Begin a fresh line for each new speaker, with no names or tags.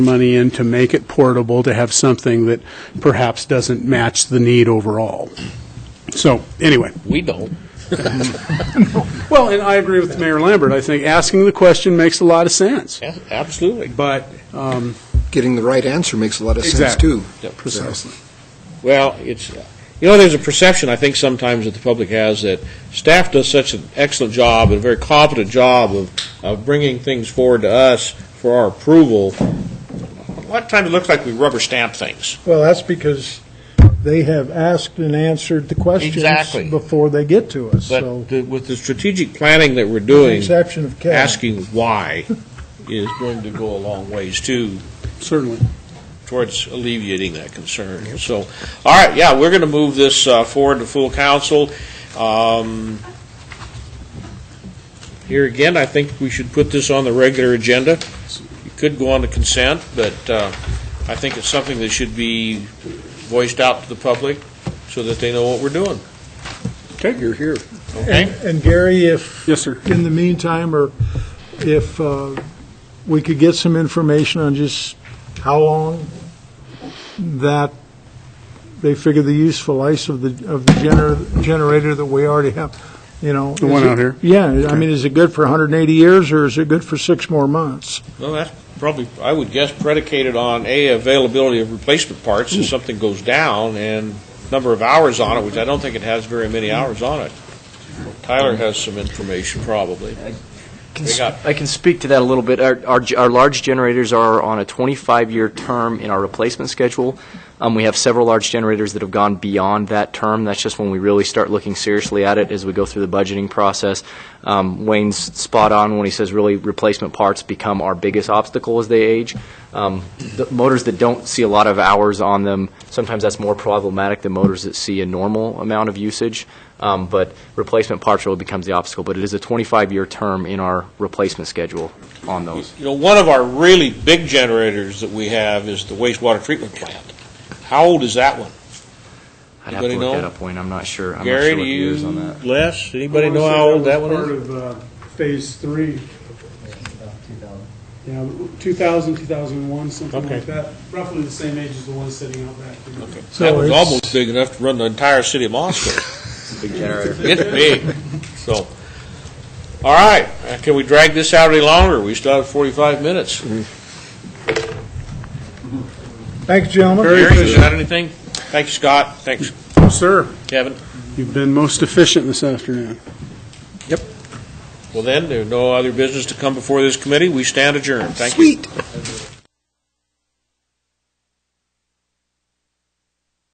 money in to make it portable, to have something that perhaps doesn't match the need overall. So, anyway.
We don't.
Well, and I agree with Mayor Lambert. I think asking the question makes a lot of sense.
Yeah, absolutely.
But, um,
getting the right answer makes a lot of sense,
Exactly.
too.
Yep.
precisely.
Well, it's, you know, there's a perception, I think, sometimes that the public has that staff does such an excellent job and a very competent job of, of bringing things forward to us for our approval. A lot of times it looks like we rubber stamp things.
Well, that's because they have asked and answered the
Exactly.
questions before they get to us, so.
But the- with the strategic planning that we're
with the
doing,
Exception of Cal.
asking why is going to go a long ways too,
Certainly.
towards alleviating that concern. So, all right, yeah, we're going to move this uh, forward to full council. Um, Here again, I think we should put this on the regular agenda. It could go on to consent, but uh, I think it's something that should be voiced out to the public so that they know what we're doing,
Okay, you're here.
And
okay?
and Gary, if,
Yes, sir.
in the meantime, or if uh, we could get some information on just how long that they figure the useful life of the, of the gener- generator that we already have, you know.
The
is
one
it-
out here?
Yeah, I mean, is it good for 180 years, or is it good for six more months?
Well, that's probably, I would guess predicated on, A, availability of replacement parts if something goes down, and number of hours on it, which I don't think it has very many hours on it. Tyler has some information, probably.
Can
They
sp-
got-
I can speak to that a little bit. Our, our, ge- our large generators are on a 25-year term in our replacement schedule. Um, we have several large generators that have gone beyond that term. That's just when we really start looking seriously at it as we go through the budgeting process. Um, Wayne's spot on when he says really replacement parts become our biggest obstacle as they age. Um, the motors that don't see a lot of hours on them, sometimes that's more problematic than motors that see a normal amount of usage. Um, But replacement parts really becomes the obstacle, but it is a 25-year term in our replacement schedule on those.
You know, one of our really big generators that we have is the wastewater treatment plant. How old is that one?
I'd have to
Anybody
look that
know?
up, Wayne, I'm not sure, I'm not
Gary,
sure
do
what the
you,
years on that.
Les, anybody know how old that one is?
Part of Phase Three. Yeah, 2000, 2001, something
Okay. like
that. Roughly the same age as the one sitting out back.
Okay.
So
That was
it's-
almost big enough to run the entire city of Moscow.
Big generator.
It's big, so. All right, uh, can we drag this out any longer? We still have 45 minutes.
Thanks, gentlemen.
Gary, you got anything? Thanks, Scott. Thanks,
Sir,
Kevin.
you've been most efficient this afternoon.
Well then, there are no other business to come before this committee. We stand adjourned. Thank you.
Sweet.